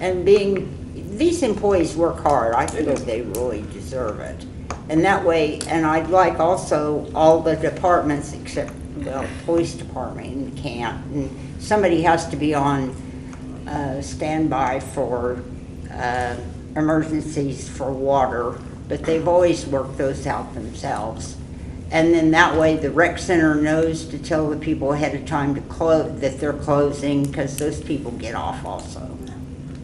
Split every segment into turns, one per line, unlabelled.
And being, these employees work hard, I think they really deserve it. And that way, and I'd like also all the departments except, well, police department can't. And Somebody has to be on uh, standby for uh, emergencies for water, but they've always worked those out themselves. And then that way, the rec center knows to tell the people ahead of time to close, that they're closing, because those people get off also.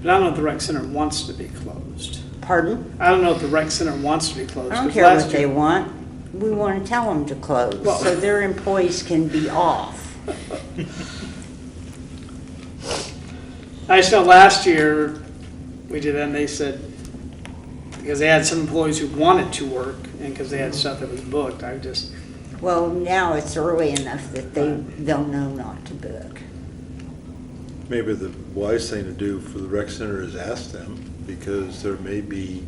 But I don't know if the rec center wants to be closed.
Pardon?
I don't know if the rec center wants to be closed.
I don't
'cause
care what
last
they
year-
want. We want to tell them to close,
Well-
so their employees can be off.
I just know last year, we did that and they said, because they had some employees who wanted to work and because they had stuff that was booked, I just,
Well, now it's early enough that they, they'll know not to book.
Maybe the wise thing to do for the rec center is ask them, because there may be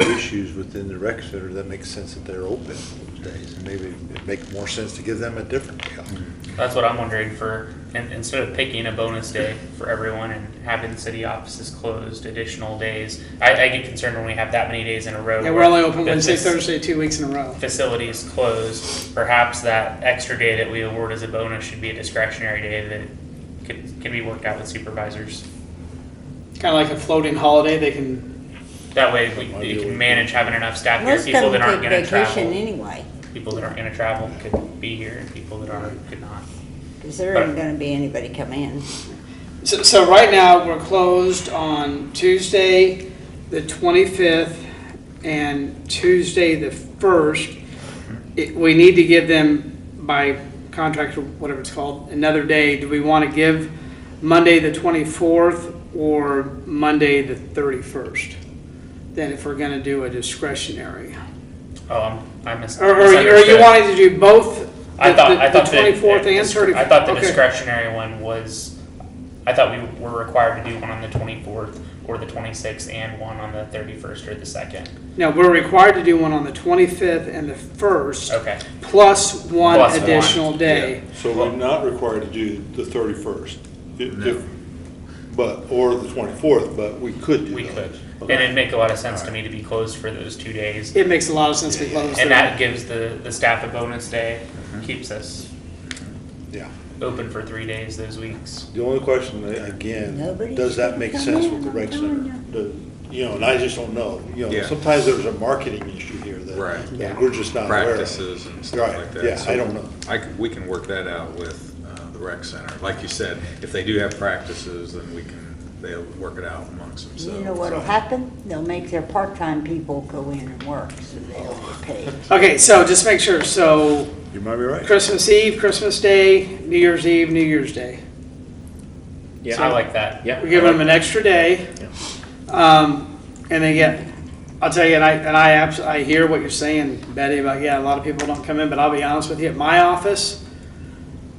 issues within the rec center that makes sense that they're open those days. And maybe it'd make more sense to give them a different calendar.
That's what I'm wondering for, in instead of picking a bonus day for everyone and having city offices closed additional days, I, I get concerned when we have that many days in a row.
yeah, we're
where
only open
the
Wednesday,
fac-
Thursday, two weeks in a row.
Facilities closed, perhaps that extra day that we award as a bonus should be a discretionary day that could, could be worked out with supervisors.
Kind of like a floating holiday, they can,
That way, we,
Might be
you
a
can
week.
manage having enough staff here,
Most
people
of
that
them
aren't
take
gonna
vacation
travel,
anyway,
people that aren't gonna travel could be here, and people that are, could not.
because there isn't going to be anybody come in.
so, so right now, we're closed on Tuesday, the twenty-fifth, and Tuesday, the first. It, we need to give them by contract or whatever it's called, another day. Do we want to give Monday, the twenty-fourth, or Monday, the thirty-first? Then if we're gonna do a discretionary.
Oh, I'm- I mis-
Or, or you- or you
misunderstood.
wanted to do both?
I
the-
thought,
the-
I thought
The twenty-fourth
the,
and thirty-first?
I thought the discretionary one was. I thought we were required to do one on the twenty fourth or the twenty sixth and one on the thirty first or the second.
No, we're required to do one on the 25th and the 1st,
Okay.
plus one
Plus one.
additional day.
So we're not required to do the thirty-first, but, or the twenty-fourth, but we could do
We
those.
could. And it'd make a lot of sense to me to be closed for those two days.
It makes a lot of sense to close
And
that.
that gives the, the staff a bonus day, keeps us
Yeah.
open for three days those weeks.
The only question, uh, again,
Nobody's
does that make
gonna
sense
come
with the
in,
rec
I'm telling
center? The- You know, and I just don't know. You know,
Yeah.
sometimes there's a marketing issue here
Right.
that- that we're just not aware of.
practices and stuff
Uh, Right,
like that.
yeah,
So
I don't know.
I c- we can work that out with uh, the rec center. Like you said, if they do have practices, then we can, they'll work it out amongst themselves.
You know what'll happen? They'll make their part-time people go in and work, so they'll get paid.
Okay, so just make sure, so
You might be right.
Christmas Eve, Christmas Day, New Year's Eve, New Year's Day.
Yeah,
So-
I like that.
Yeah.
We're giving them an extra day. Um, and they get, I'll tell you, and I, and I abs, I hear what you're saying, Betty, about, yeah, a lot of people don't come in, but I'll be honest with you, at my office,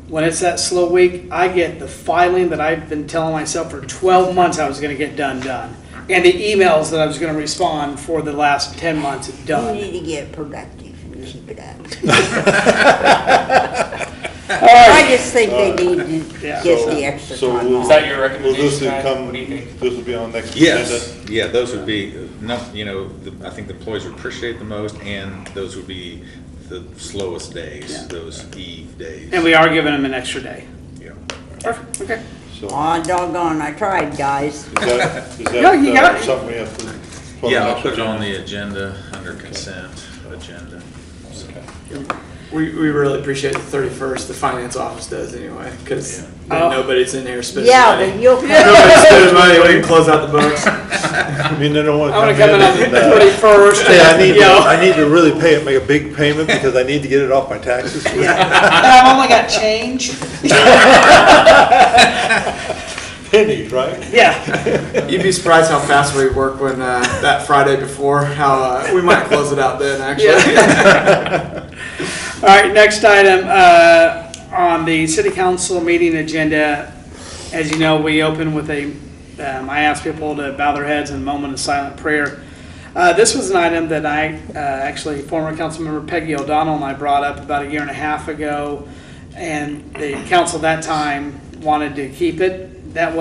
when it's that slow week, I get the filing that I've been telling myself for twelve months I was gonna get done, done. And the emails that I was gonna respond for the last ten months,
You
done.
need to get productive and keep it up.
All right.
I just think they need to
Yeah.
get the extra
So
time
we'll-
Is that your
Well, this
recommendation,
would
Ty?
come,
What do you think?
this will be on next agenda.
Yes, yeah, those would be, no, you know, the- I think the employees would appreciate the most, and those would be the slowest
Yeah.
days, those eve days.
And we are giving them an extra day.
Yeah.
Perfect, okay.
So, is
Aw, doggone, I tried, guys.
that, is
No, you
that
got
uh,
it.
something we have to? put
Yeah,
on
I'll
next
put it on
agenda?
the agenda, under consent agenda.
We, we really appreciate the 31st, the finance office does anyway, because then
Oh.
nobody's in there spending
Yeah,
money.
but you'll,
Nobody's spending money, we can close out the books.
I mean, they don't want
I'm
to
gonna come in on
and, uh,
the twenty-first.
Hey, I need, to- I need to really pay it, make a big payment because I need to get it off my taxes.
I've only got change.
Pennies, right?
Yeah.
You'd be surprised how fast we work when, uh, that Friday before, how, uh, we might close it out then, actually.
All right, next item, uh, on the city council meeting agenda, as you know, we open with a, um, I ask people to bow their heads in a moment of silent prayer. Uh, this was an item that I, uh, actually, former council member Peggy O'Donnell and I brought up about a year and a half ago, and the council that time wanted to keep it. That